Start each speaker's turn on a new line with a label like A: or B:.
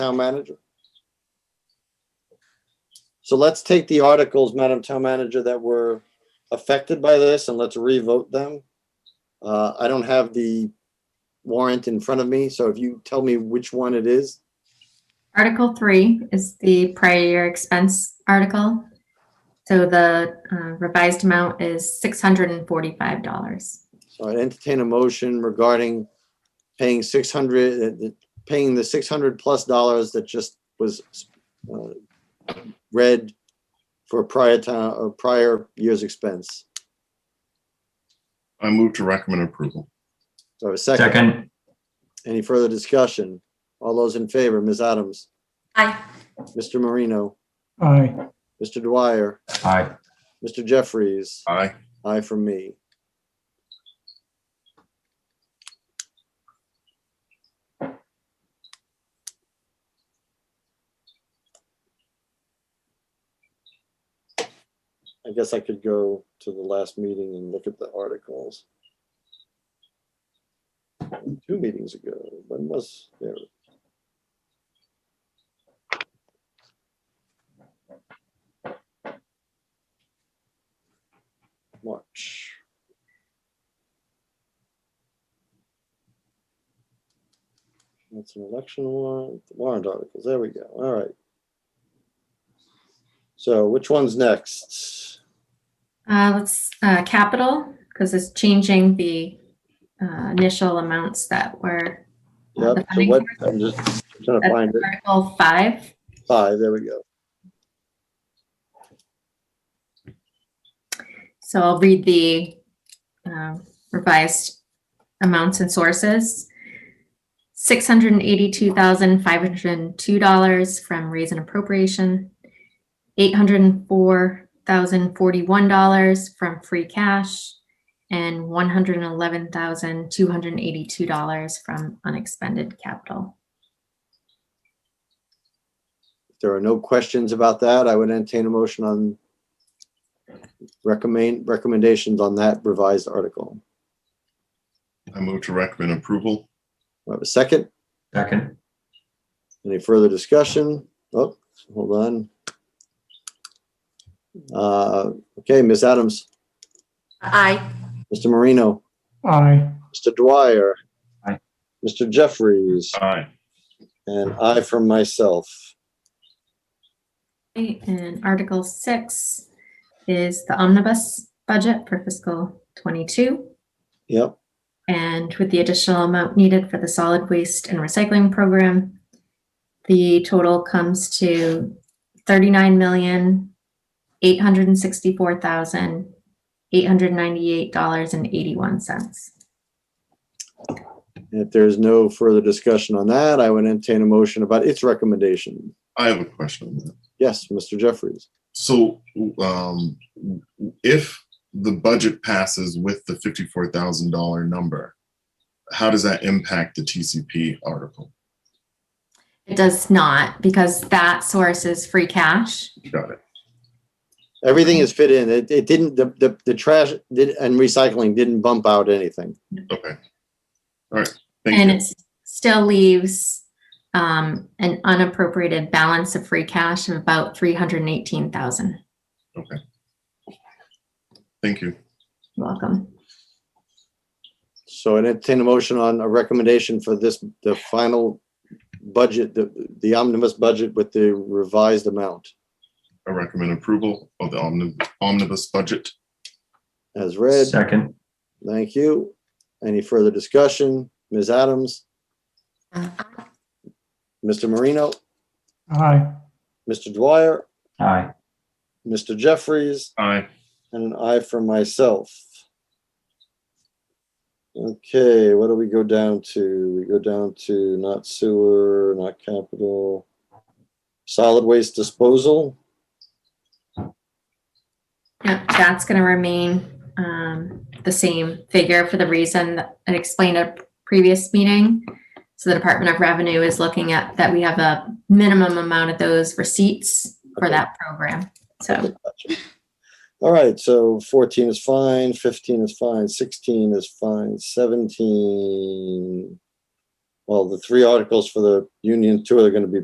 A: Town Manager? So let's take the articles, Madam Town Manager, that were affected by this and let's revote them. Uh, I don't have the warrant in front of me, so if you tell me which one it is,
B: Article three is the prior year expense article. So the uh, revised amount is six hundred and forty-five dollars.
A: So I'd entertain a motion regarding paying six hundred, paying the six hundred plus dollars that just was uh, read for prior time, or prior year's expense.
C: I move to recommend approval.
A: So a second,
D: Second,
A: any further discussion? All those in favor, Ms. Adams,
B: Aye.
A: Mr. Marino,
E: Aye.
A: Mr. Dwyer,
D: aye.
A: Mr. Jeffries,
C: Aye.
A: aye from me. I guess I could go to the last meeting and look at the articles. Two meetings ago, when was there? March. That's an election warrant, warrant articles, there we go, all right. So which one's next?
B: Uh, let's, uh, capital, because it's changing the, uh, initial amounts that were. uh, the
A: Yep, so
B: funding
A: what,
B: source.
A: I'm just trying to
B: That's
A: find it,
B: Article five,
A: five, there we go.
B: so I'll read the, um, revised amounts and sources. Six hundred and eighty-two thousand, five hundred and two dollars from raise and appropriation. Eight hundred and four thousand, forty-one dollars from free cash. And one hundred and eleven thousand, two hundred and eighty-two dollars from unexpended capital.
A: If there are no questions about that, I would entertain a motion on recommend, recommendations on that revised article.
C: I move to recommend approval.
A: Do I have a second?
D: Second,
A: Any further discussion? Oh, hold on. Uh, Okay, Ms. Adams,
B: Aye.
A: Mr. Marino,
E: Aye.
A: Mr. Dwyer.
D: Aye.
A: Mr. Jeffries,
C: Aye.
A: and I from myself.
B: Okay, And Article six is the omnibus budget for fiscal twenty-two.
A: Yep,
B: And with the additional amount needed for the solid waste and recycling program, the total comes to thirty-nine million, eight hundred and sixty-four thousand, eight hundred ninety-eight dollars and eighty-one cents.
A: if there's no further discussion on that, I would entertain a motion about its recommendation.
C: I have a question on that.
A: Yes, Mr. Jeffries.
C: So um, if the budget passes with the fifty-four thousand dollar number, how does that impact the TCP article?
B: It does not, because that source is free cash.
C: Got it.
A: Everything is fit in. It, it didn't, the, the, the trash did, and recycling didn't bump out anything.
C: Okay. All right.
B: And
C: Thank you.
B: it still leaves um, an unappropriated balance of free cash of about three hundred and eighteen thousand.
C: Thank you.
B: You're welcome.
A: So I entertain a motion on a recommendation for this, the final budget, the, the omnibus budget with the revised amount
C: I recommend approval of the omni- omnibus budget.
A: as read.
D: second,
A: Thank you. Any further discussion? Ms. Adams, Mr. Marino,
E: Aye.
A: Mr. Dwyer,
D: aye.
A: Mr. Jeffries,
C: Aye.
A: and an aye for myself. Okay, what do we go down to? We go down to not sewer, not capital, solid waste disposal.
B: Yep, that's gonna remain um, the same figure for the reason that I explained at a previous meeting. So the Department of Revenue is looking at that we have a minimum amount of those receipts for
A: Okay.
B: that program. So
A: Gotcha. All right, so fourteen is fine, fifteen is fine, sixteen is fine, seventeen. Well, the three articles for the union tour are gonna be